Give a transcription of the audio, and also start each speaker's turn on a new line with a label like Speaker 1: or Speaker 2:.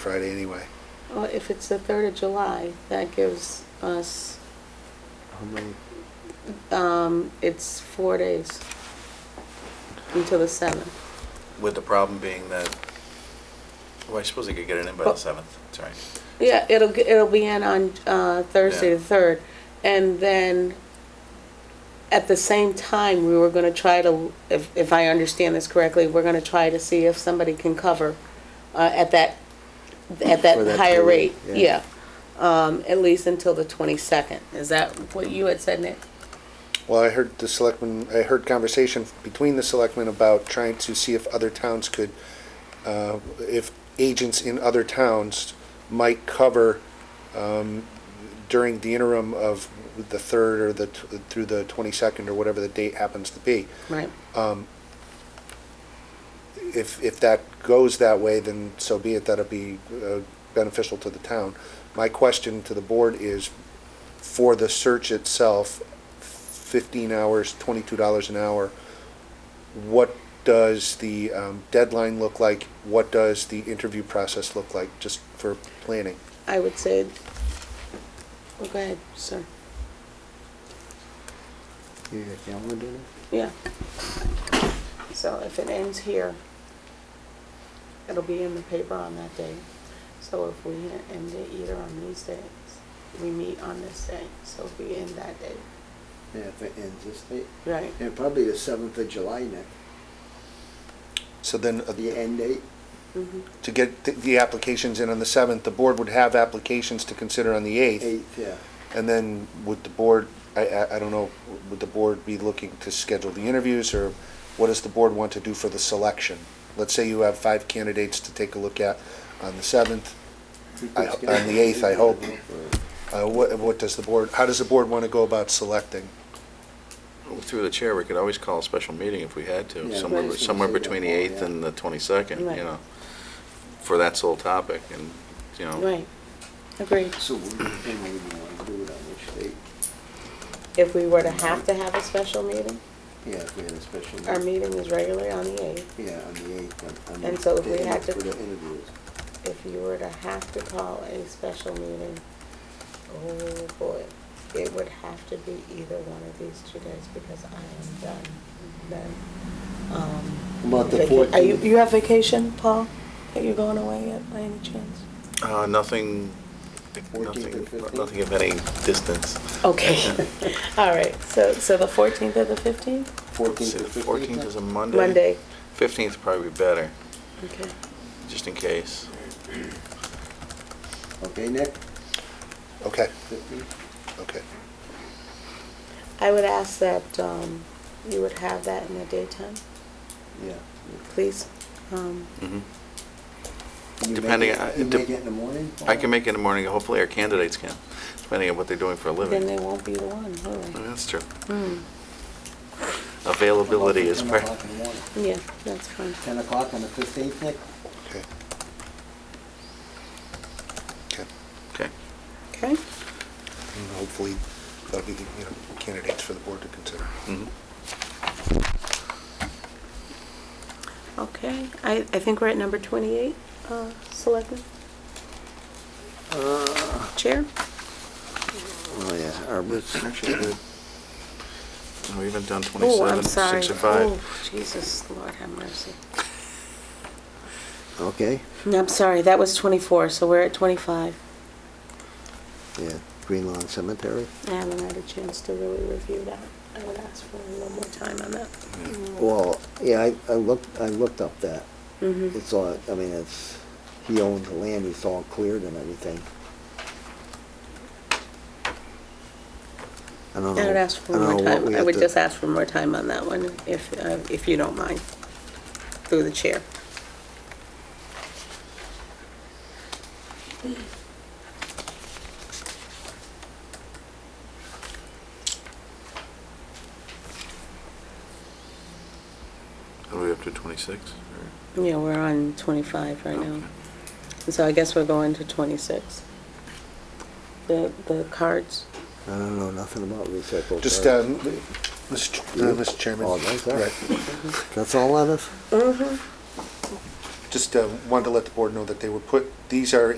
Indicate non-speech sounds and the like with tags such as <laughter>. Speaker 1: Friday anyway.
Speaker 2: Well, if it's the 3rd of July, that gives us,
Speaker 3: How many?
Speaker 2: um, it's four days until the 7th.
Speaker 4: With the problem being that, well, I suppose they could get it in by the
Speaker 2: But-
Speaker 4: 7th, that's right.
Speaker 2: Yeah, it'll, g- it'll be in on uh, Thursday,
Speaker 4: Yeah.
Speaker 2: the 3rd. And then, at the same time, we were going to try to, if, if I understand this correctly, we're going to try to see if somebody can cover uh, at that, at
Speaker 3: For
Speaker 2: that
Speaker 3: that
Speaker 2: higher rate.
Speaker 3: period,
Speaker 2: Yeah.
Speaker 3: yeah.
Speaker 2: Um, At least until the 22nd. Is that what you had said, Nick?
Speaker 1: Well, I heard the selectmen, I heard conversation between the selectmen about trying to see if other towns could, uh, if agents in other towns might cover um, during the interim of the 3rd or the, t- through the 22nd or whatever the date happens to be.
Speaker 2: Right.
Speaker 1: Um, if, if that goes that way, then so be it, that'll be uh, beneficial to the town. My question to the board is, for the search itself, fifteen hours, twenty-two dollars an hour, what does the um, deadline look like? What does the interview process look like, just for planning?
Speaker 2: I would say, well, go ahead, sir.
Speaker 3: You got a calendar now?
Speaker 2: Yeah. So if it ends here, it'll be in the paper on that day. So if we end it either on these days, we meet on this day, so if we end that day,
Speaker 3: Yeah, if it ends this date.
Speaker 2: right?
Speaker 3: And probably the seventh of July, Nick,
Speaker 1: So then, uh,
Speaker 3: the end date.
Speaker 2: Mhm.
Speaker 1: to get th- the applications in on the seventh, the board would have applications to consider on the eighth.
Speaker 3: Eighth, yeah.
Speaker 1: And then would the board, I, I, I don't know, would the board be looking to schedule the interviews, or what does the board want to do for the selection? Let's say you have five candidates to take a look at on the seventh, I- on the eighth, I hope. uh, what, what does the board, how does the board want to go about selecting?
Speaker 4: Through the chair, we could always call a special meeting if we had to,
Speaker 3: Yeah,
Speaker 2: I
Speaker 4: somewhere,
Speaker 2: was gonna
Speaker 4: somewhere
Speaker 3: say that
Speaker 4: between the
Speaker 3: more,
Speaker 4: 8th
Speaker 3: yeah.
Speaker 4: and the 22nd,
Speaker 2: Right.
Speaker 4: you know, for that sole topic, and, you know,
Speaker 2: Right, Oh. agreed.
Speaker 3: So we and we don't wanna do it on which date?
Speaker 2: If we were to have to have a special meeting,
Speaker 3: Yeah, if we had a special.
Speaker 2: our meeting is regularly on the eighth.
Speaker 3: Yeah, on the eighth.
Speaker 2: And so if we had to-
Speaker 3: For the interviews.
Speaker 2: if you were to have to call a special meeting, oh boy, it would have to be either one of these two days because I am done then. Um,
Speaker 3: About the
Speaker 2: vaca- Are you,
Speaker 3: 14th.
Speaker 2: you have vacation, Paul? Are you going away yet by any chance?
Speaker 4: uh, nothing,
Speaker 3: 14th
Speaker 4: nothing,
Speaker 3: and 15th?
Speaker 4: nothing of any distance. <laughs>
Speaker 3: <laughs>
Speaker 2: Okay, all right, so, so the fourteenth or the fifteenth?
Speaker 3: Fourteenth
Speaker 4: See,
Speaker 3: to
Speaker 4: the
Speaker 3: fifteenth.
Speaker 4: 14th is a Monday.
Speaker 2: Monday,
Speaker 4: 15th would probably be better,
Speaker 2: okay.
Speaker 4: just in case.
Speaker 3: Okay, Nick,
Speaker 1: Okay,
Speaker 3: fifteenth?
Speaker 1: okay.
Speaker 2: I would ask that, um, you would have that in the daytime,
Speaker 3: Yeah.
Speaker 2: please. Um,
Speaker 4: Mhm.
Speaker 3: Can you make
Speaker 4: Depending
Speaker 3: it-
Speaker 4: on-
Speaker 3: You
Speaker 4: it dep-
Speaker 3: make it in the morning?
Speaker 4: I can make it in the morning, hopefully our candidates can, depending on what they're doing for a
Speaker 2: then
Speaker 4: living.
Speaker 2: they won't be the one, will
Speaker 4: Oh,
Speaker 2: they?
Speaker 4: That's true.
Speaker 2: Hmm,
Speaker 4: Availability is
Speaker 3: Ten
Speaker 4: part.
Speaker 3: o'clock in the morning.
Speaker 2: yeah, that's fine.
Speaker 3: Ten o'clock on the fifteenth, Nick?
Speaker 1: Okay. Okay,
Speaker 4: Okay.
Speaker 2: Okay.
Speaker 1: and hopefully, that'll be the, you know, candidates for the board to consider.
Speaker 4: Mhm.
Speaker 2: Okay, I, I think we're at number 28, uh, Selectman,
Speaker 3: Uh,
Speaker 2: Chair.
Speaker 3: Oh, yeah, Arbor's actually good.
Speaker 4: We haven't done
Speaker 2: Oh, I'm
Speaker 4: 27,
Speaker 2: sorry.
Speaker 4: 65.
Speaker 2: Oh, Jesus, Lord have mercy.
Speaker 3: Okay,
Speaker 2: No, I'm sorry, that was 24, so we're at 25.
Speaker 3: yeah, Green Lawn Cemetery.
Speaker 2: I haven't had a chance to really review that. I would ask for a little more time on that. Mm.
Speaker 3: Well, yeah, I, I looked, I looked up that.
Speaker 2: Mhm.
Speaker 3: It's all, I mean, it's, he owns the land, it's all cleared and everything. I
Speaker 2: I
Speaker 3: don't know.
Speaker 2: would ask for
Speaker 3: I don't
Speaker 2: more
Speaker 3: know what we
Speaker 2: time. I
Speaker 3: have
Speaker 2: would
Speaker 3: to-
Speaker 2: just ask for more time on that one, if, uh, if you don't mind, through the chair.
Speaker 4: Are we up to 26?
Speaker 2: Yeah, we're on 25 right now. And So I guess we're going to 26. The, the cards.
Speaker 3: I don't know nothing about recycled.
Speaker 1: Just,
Speaker 3: garbage.
Speaker 1: um, Mr. Ch- uh, Mr. Chairman.
Speaker 3: Oh, that's all
Speaker 1: Right.
Speaker 3: right. That's all on us?
Speaker 2: Mm-hmm.
Speaker 1: Just uh, wanted to let the board know that they were put, these are